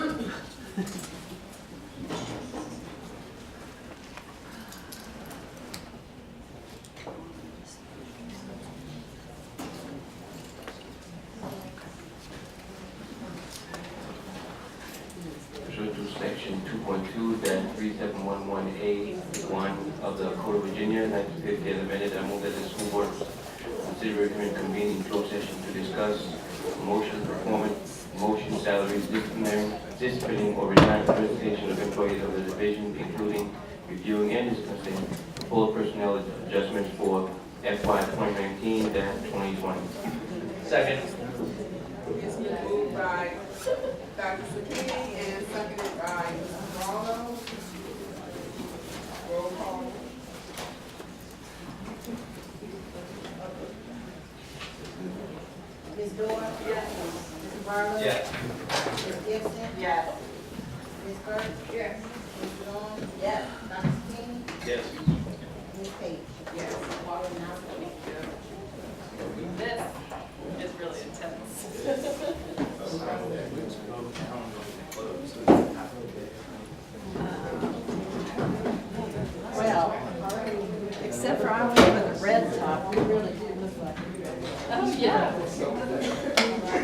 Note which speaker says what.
Speaker 1: Pursuant to section 2.2-3711A1 of the Code of Virginia, 1950, as amended, I move that the school board consider recommend convening in closed session to discuss motion, performance, motion, salaries, disciplinary, disciplining or retirement presentation of employees of the division, including reviewing and discussing full personnel adjustments for FY 2019-2020. Second.
Speaker 2: It's been moved by Dr. Sakini and seconded by Mrs. Marlowe. Roll call.
Speaker 3: Ms. Dorr? Yes. Mrs. Barlow?
Speaker 1: Yes.
Speaker 3: Ms. Gibson?
Speaker 2: Yes.
Speaker 3: Ms. Burke?
Speaker 2: Yes.
Speaker 3: Ms. Vaughn? Yes. Dr. King?
Speaker 1: Yes.
Speaker 3: Ms.